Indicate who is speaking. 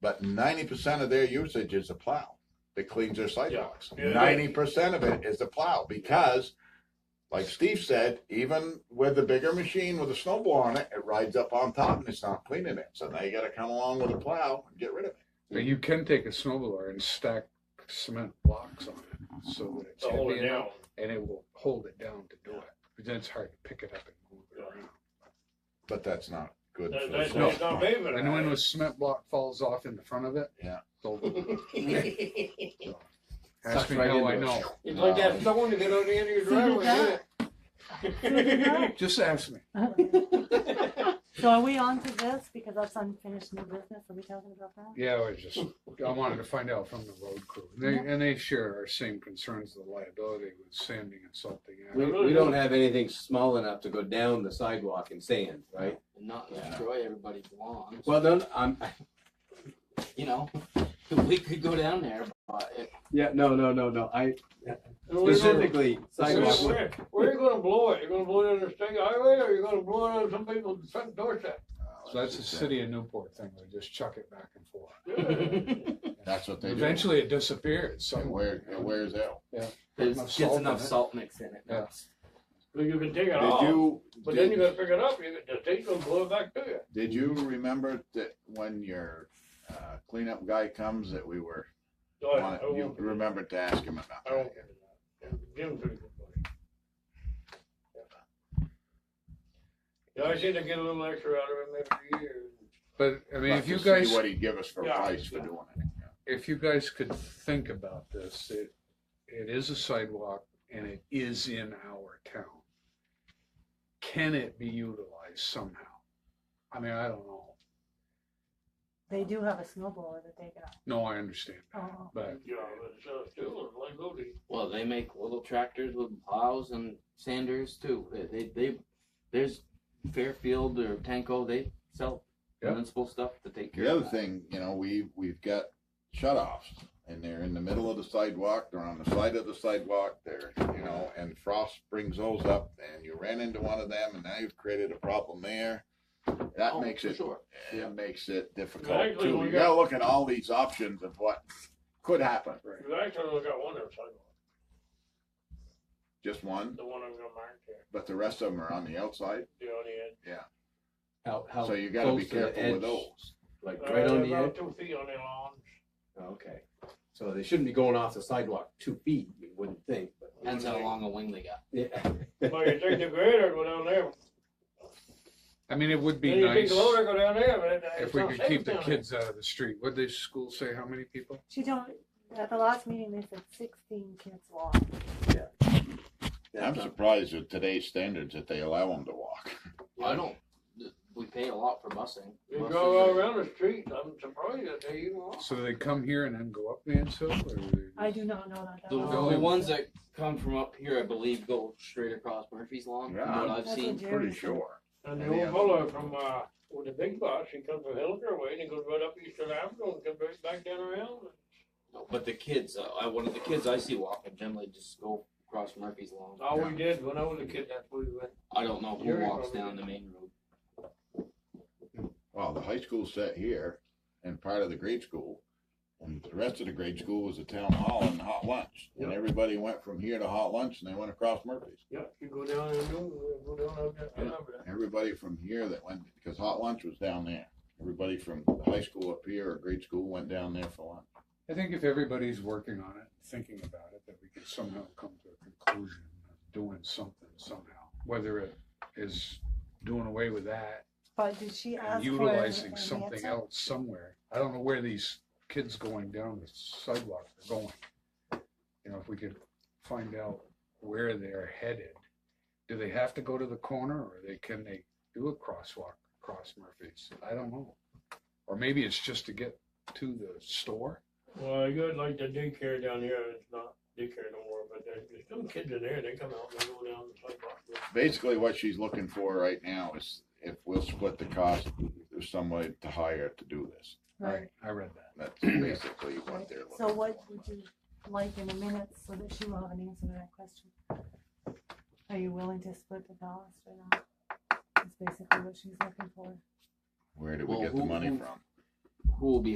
Speaker 1: But ninety percent of their usage is the plow that cleans their sidewalks.
Speaker 2: Yeah, yeah.
Speaker 1: Ninety percent of it is the plow because, like Steve said, even with the bigger machine with a snowball on it, it rides up on top and it's not cleaning it. So now you got to come along with a plow and get rid of it.
Speaker 3: But you can take a snowblower and stack cement blocks on it so that it's
Speaker 2: To hold
Speaker 3: heavy
Speaker 2: it
Speaker 3: enough
Speaker 2: down.
Speaker 3: and it will hold it down to do it. But then it's hard to pick it up and move it around.
Speaker 1: But that's not good.
Speaker 2: That-
Speaker 1: for the
Speaker 2: That's
Speaker 1: snow.
Speaker 2: that's not paving.
Speaker 3: And when the cement block falls off in the front of it,
Speaker 1: Yeah.
Speaker 3: it's over.
Speaker 4: You'd
Speaker 3: Ask
Speaker 5: Sucks
Speaker 3: me
Speaker 5: right
Speaker 3: how I
Speaker 5: into
Speaker 3: know.
Speaker 5: it.
Speaker 4: like
Speaker 1: Uh,
Speaker 4: that someone to get on the end of your driveway, yeah.
Speaker 6: So
Speaker 3: Just ask me.
Speaker 6: are we on to this? Because that's unfinished new business. Are we talking about that?
Speaker 3: Yeah, I was just, I wanted to find out from the road crew. And they, and they share our same concerns, the liability with sanding and salting.
Speaker 5: We, we don't have anything small enough to go down the sidewalk and sand, right?
Speaker 4: And not destroy everybody's lawns,
Speaker 5: Well, no, I'm,
Speaker 4: you know, we could go down there, but it-
Speaker 5: yeah, no, no, no, no, I
Speaker 2: We're gonna-
Speaker 5: specifically sidewalk. was-
Speaker 2: Where where are you gonna blow it? You gonna blow it on the state highway or you gonna blow it on some people's front doorstep?
Speaker 3: So that's the city of Newport thing. They just chuck it back and forth.
Speaker 1: That's what they do.
Speaker 3: Eventually it disappears
Speaker 1: It
Speaker 3: somewhere.
Speaker 1: wears, it wears out.
Speaker 4: there's
Speaker 3: Enough
Speaker 4: just
Speaker 3: salt
Speaker 4: enough
Speaker 3: in it.
Speaker 4: salt mix in it.
Speaker 3: Yeah.
Speaker 2: But you can take it
Speaker 1: Did
Speaker 2: off,
Speaker 1: you?
Speaker 2: but then
Speaker 1: did-
Speaker 2: you gotta pick it up. You, the state's gonna blow it back to you.
Speaker 1: Did you remember that when your uh, cleanup guy comes that we were,
Speaker 2: So I, I
Speaker 1: you
Speaker 2: won't,
Speaker 1: remembered to ask him about
Speaker 2: I
Speaker 1: that?
Speaker 2: won't. Jim's pretty good buddy. Yeah, I seem to get a little extra out of him every year.
Speaker 3: But I mean,
Speaker 1: But
Speaker 3: if
Speaker 1: to
Speaker 3: you
Speaker 1: see
Speaker 3: guys,
Speaker 1: What he'd give us for
Speaker 2: Yeah.
Speaker 1: price for doing it. yeah.
Speaker 3: if you guys could think about this, it, it is a sidewalk and it is in our town. Can it be utilized somehow? I mean, I don't know.
Speaker 6: They do have a snowblower that they got.
Speaker 3: No, I understand that,
Speaker 6: Oh.
Speaker 3: but
Speaker 2: Yeah, but it's, uh, still a liability.
Speaker 4: Well, they make little tractors with plows and sanders too. They, they, they there's Fairfield or Tanko, they sell
Speaker 3: Yeah.
Speaker 4: municipal stuff to take care
Speaker 1: The
Speaker 4: of.
Speaker 1: other
Speaker 4: that.
Speaker 1: thing, you know, we, we've got shut-offs, and they're in the middle of the sidewalk, they're on the side of the sidewalk, they're, you know, and frost brings those up, and you ran into one of them, and now you've created a problem there. That
Speaker 4: Oh,
Speaker 1: makes
Speaker 4: for
Speaker 1: it,
Speaker 4: Sure.
Speaker 1: it makes it difficult,
Speaker 2: Exactly,
Speaker 1: too.
Speaker 2: we
Speaker 1: You
Speaker 2: got-
Speaker 1: gotta look at all these options of what could happen.
Speaker 2: You actually only got one outside,
Speaker 1: Just one,
Speaker 2: the one I'm gonna mark there,
Speaker 1: but the rest of them are on the outside,
Speaker 2: the on the edge.
Speaker 5: How, how
Speaker 1: so you gotta be
Speaker 5: close to the
Speaker 1: careful with
Speaker 5: edge,
Speaker 1: those.
Speaker 5: Like
Speaker 2: Uh,
Speaker 5: right on the
Speaker 2: about
Speaker 5: edge, Oh,
Speaker 2: Two feet on the lawn.
Speaker 5: okay, so they shouldn't be going off the sidewalk two feet, you wouldn't think, but,
Speaker 4: Depends how long a wing they got.
Speaker 2: Well, you
Speaker 5: yeah.
Speaker 2: take the grader and go down there.
Speaker 3: I mean, it would be
Speaker 2: Then you take
Speaker 3: nice
Speaker 2: the loader, go down there, but it-
Speaker 3: if
Speaker 2: it's
Speaker 3: we
Speaker 2: not
Speaker 3: could
Speaker 2: safe
Speaker 3: keep the
Speaker 2: down there.
Speaker 3: kids out of the street. What did the school say? How many people?
Speaker 6: She told me at the last meeting they said sixteen kids walk.
Speaker 1: I'm surprised with today's standards that they allow them to walk.
Speaker 4: I don't. We pay a lot for busing.
Speaker 2: You
Speaker 4: Buses
Speaker 2: go all
Speaker 4: are-
Speaker 2: around the street, I'm surprised that they even walk.
Speaker 3: So they come here and then go up Mansfield or
Speaker 6: I do not know that.
Speaker 4: The,
Speaker 3: Go
Speaker 4: the
Speaker 3: in.
Speaker 4: ones that come from up here, I believe, go straight across Murphy's Lawn.
Speaker 1: Yeah,
Speaker 4: From what
Speaker 1: I'm
Speaker 4: I've seen.
Speaker 1: Pretty sure.
Speaker 2: And the
Speaker 1: And the
Speaker 2: old fellow from, uh, with the big bus, he comes from Hilliker way, and he goes right up Eastern Avenue and comes right back down around.
Speaker 4: No, but the kids, uh, I, one of the kids I see walking generally just go across Murphy's Lawn.
Speaker 2: All we did when I was a kid, that's what we went.
Speaker 4: I don't know who
Speaker 2: You're
Speaker 4: walks
Speaker 2: probably-
Speaker 4: down the main road.
Speaker 1: Well, the high school sat here and part of the grade school, and the rest of the grade school was the town hall and hot lunch. And
Speaker 2: Yep.
Speaker 1: everybody went from here to hot lunch and they went across Murphy's.
Speaker 2: Yeah, you go down and do, go down, up there. I remember that.
Speaker 1: Everybody from here that went, because hot lunch was down there. Everybody from the high school up here or grade school went down there for lunch.
Speaker 3: I think if everybody's working on it, thinking about it, that we could somehow come to a conclusion of doing something somehow, whether it is doing away with that
Speaker 6: But did she ask
Speaker 3: and
Speaker 6: for?
Speaker 3: utilizing
Speaker 6: an
Speaker 3: something
Speaker 6: answer?
Speaker 3: else somewhere. I don't know where these kids going down the sidewalk are going. You know, if we could find out where they're headed. Do they have to go to the corner or they, can they do a crosswalk across Murphy's? I don't know. Or maybe it's just to get to the store.
Speaker 2: Well, you got like the daycare down here, it's not daycare no more, but there's, there's some kids in there, they come out and they go down the sidewalk.
Speaker 1: Basically, what she's looking for right now is if we'll split the cost, there's somebody to hire to do this.
Speaker 6: Right.
Speaker 3: I read that.
Speaker 1: That's basically what
Speaker 6: Right.
Speaker 1: they're looking for.
Speaker 6: So what would you like in a minute so that she will have an answer to that question? Are you willing to split the cost or not? That's basically what she's looking for.
Speaker 1: Where do we
Speaker 4: Well,
Speaker 1: get the
Speaker 4: who-
Speaker 1: money
Speaker 4: who-
Speaker 1: from?
Speaker 4: Who will be